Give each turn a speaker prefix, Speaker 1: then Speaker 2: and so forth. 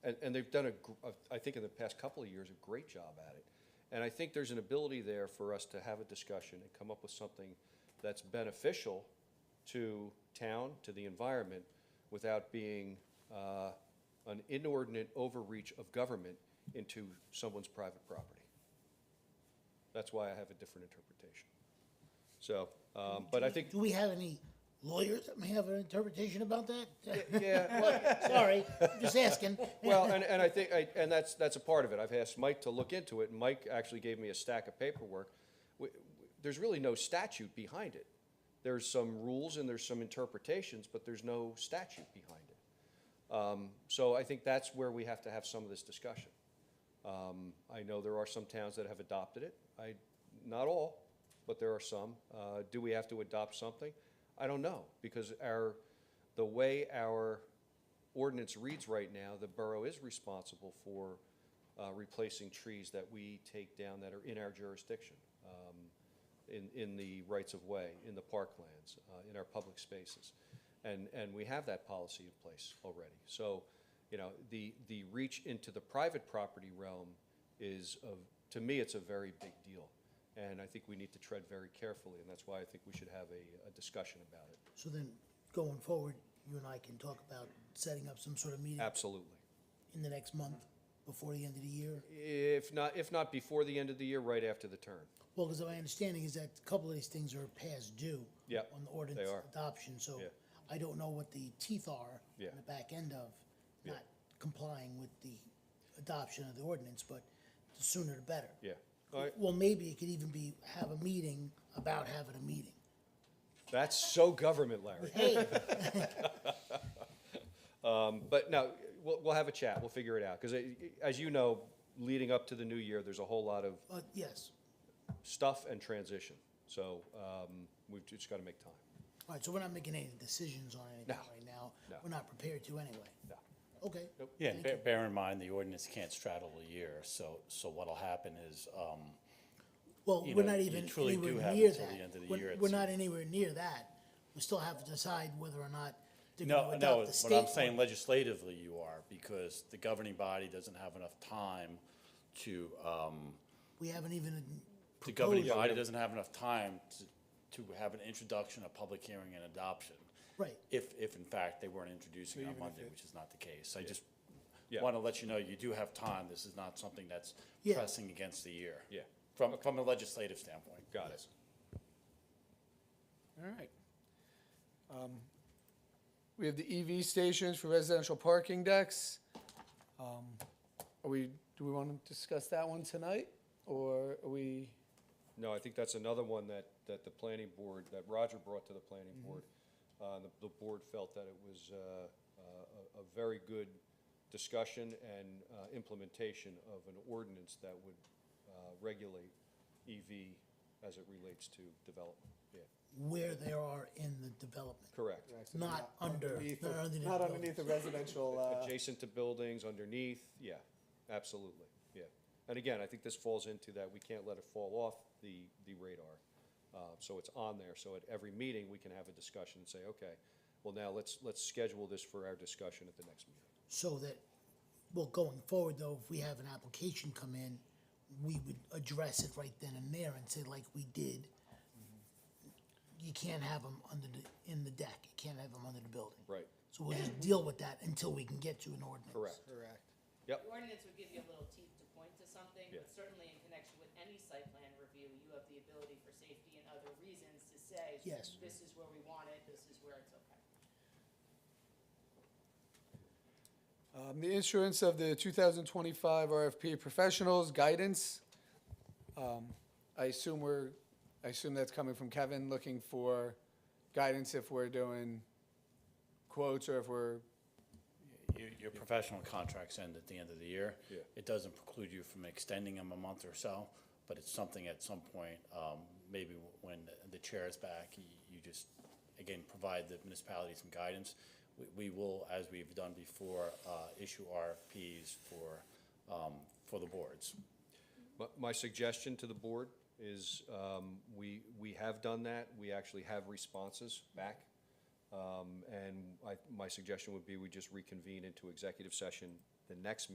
Speaker 1: And, and they've done a gr- a, I think in the past couple of years, a great job at it. And I think there's an ability there for us to have a discussion and come up with something that's beneficial to town, to the environment, without being, uh, an inordinate overreach of government into someone's private property. That's why I have a different interpretation. So, um, but I think,
Speaker 2: Do we have any lawyers that may have an interpretation about that?
Speaker 1: yeah, well,
Speaker 2: Sorry, I'm just asking.
Speaker 1: Well, and, and I think, I- and that's, that's a part of it. I've asked Mike to look into it, and Mike actually gave me a stack of paperwork. W- w- There's really no statute behind it. There's some rules and there's some interpretations, but there's no statute behind it. Um, So I think that's where we have to have some of this discussion. Um, I know there are some towns that have adopted it. I, not all, but there are some. Uh, Do we have to adopt something? I don't know, because our, the way our ordinance reads right now, the borough is responsible for uh, replacing trees that we take down that are in our jurisdiction, um, in, in the rights-of-way, in the parklands, uh, in our public spaces. And, and we have that policy in place already. So, you know, the, the reach into the private property realm is, a- to me, it's a very big deal. And I think we need to tread very carefully, and that's why I think we should have a, a discussion about it.
Speaker 2: So then, going forward, you and I can talk about setting up some sort of meeting
Speaker 1: Absolutely.
Speaker 2: in the next month, before the end of the year.
Speaker 1: If not, if not before the end of the year, right after the turn.
Speaker 2: Well, because my understanding is that a couple of these things are past due.
Speaker 1: Yeah,
Speaker 2: On the
Speaker 1: they
Speaker 2: ordinance
Speaker 1: are.
Speaker 2: adoption, so
Speaker 1: Yeah.
Speaker 2: I don't know what the teeth are.
Speaker 1: Yeah.
Speaker 2: on The back end of
Speaker 1: Yeah.
Speaker 2: not complying with the adoption of the ordinance, but the sooner the better.
Speaker 1: Yeah. All right.
Speaker 2: Well, maybe it could even be, have a meeting about having a meeting.
Speaker 1: That's so government, Larry.
Speaker 2: Hey,
Speaker 1: Um, But no, we'll, we'll have a chat. We'll figure it out. Because as you know, leading up to the new year, there's a whole lot of
Speaker 2: uh, yes.
Speaker 1: stuff and transition. So um, we've just got to make time.
Speaker 2: All right, so we're not making any decisions on anything
Speaker 1: No.
Speaker 2: right now.
Speaker 1: No.
Speaker 2: We're not prepared to anyway.
Speaker 1: Yeah.
Speaker 2: Okay.
Speaker 3: Yeah, and
Speaker 2: Thank
Speaker 3: bear,
Speaker 2: you.
Speaker 3: bear in mind, the ordinance can't straddle a year, so, so what'll happen is, um,
Speaker 2: Well,
Speaker 3: you
Speaker 2: we're
Speaker 3: know,
Speaker 2: not
Speaker 3: you
Speaker 2: even
Speaker 3: truly do
Speaker 2: anywhere
Speaker 3: have
Speaker 2: near
Speaker 3: until the
Speaker 2: that.
Speaker 3: end of the year
Speaker 2: We're,
Speaker 3: at
Speaker 2: we're
Speaker 3: some-
Speaker 2: not anywhere near that. We still have to decide whether or not they're
Speaker 3: no,
Speaker 2: gonna
Speaker 3: no,
Speaker 2: adopt the
Speaker 3: what I'm
Speaker 2: state.
Speaker 3: saying legislatively you are, because the governing body doesn't have enough time to, um,
Speaker 2: We haven't even,
Speaker 3: the governing
Speaker 2: Proposal.
Speaker 3: body doesn't have enough time to, to have an introduction, a public hearing and adoption.
Speaker 2: right,
Speaker 3: If, if in fact they weren't introducing on Monday, which is not the case. I just
Speaker 1: Yeah.
Speaker 3: want to let you know, you do have time. This is not something that's
Speaker 2: Yeah.
Speaker 3: pressing against the year.
Speaker 1: Yeah.
Speaker 3: From, from a legislative standpoint.
Speaker 1: Got it.
Speaker 4: All right. Um, We have the EV stations for residential parking decks. Um, Are we, do we want to discuss that one tonight, or are we,
Speaker 1: No, I think that's another one that, that the planning board, that Roger brought to the planning board. Uh, the, the board felt that it was, uh, uh, a, a very good discussion and, uh, implementation of an ordinance that would, uh, regulate EV as it relates to development. Yeah,
Speaker 2: where they are in the development,
Speaker 1: correct.
Speaker 2: not under,
Speaker 5: underneath
Speaker 2: not
Speaker 5: the-
Speaker 2: underneath.
Speaker 5: Not
Speaker 2: the
Speaker 5: underneath the
Speaker 2: buildings.
Speaker 5: residential, uh,
Speaker 1: Adjacent to buildings, underneath, yeah, absolutely, yeah. And again, I think this falls into that, we can't let it fall off the, the radar. Uh, So it's on there, so at every meeting, we can have a discussion and say, okay, well now, let's, let's schedule this for our discussion at the next meeting.
Speaker 2: So that, well, going forward though, if we have an application come in, we would address it right then and there and say like we did. You can't have them under the, in the deck, you can't have them under the building.
Speaker 1: Right.
Speaker 2: So we'll just deal with that until we can get to an ordinance.
Speaker 1: Correct.
Speaker 5: correct.
Speaker 1: Yep,
Speaker 6: The ordinance would give you a little teeth to point to something,
Speaker 1: Yeah.
Speaker 6: but certainly in connection with any site plan review, you have the ability for safety and other reasons to say,
Speaker 2: Yes.
Speaker 6: this is where we want it, this is where it's okay.
Speaker 4: um, the issuance of the 2025 RFP professionals guidance? Um, I assume we're, I assume that's coming from Kevin, looking for guidance if we're doing quotes or if we're,
Speaker 3: Your, your professional contracts end at the end of the year.
Speaker 1: Yeah.
Speaker 3: It doesn't preclude you from extending them a month or so, but it's something at some point, um, maybe when the chair is back, you, you just, again, provide the municipality some guidance. We, we will, as we've done before, uh, issue RFPs for, um, for the boards.
Speaker 1: My- My suggestion to the board is, um, we, we have done that, we actually have responses back. Um, And I, my suggestion would be we just reconvene into executive session the next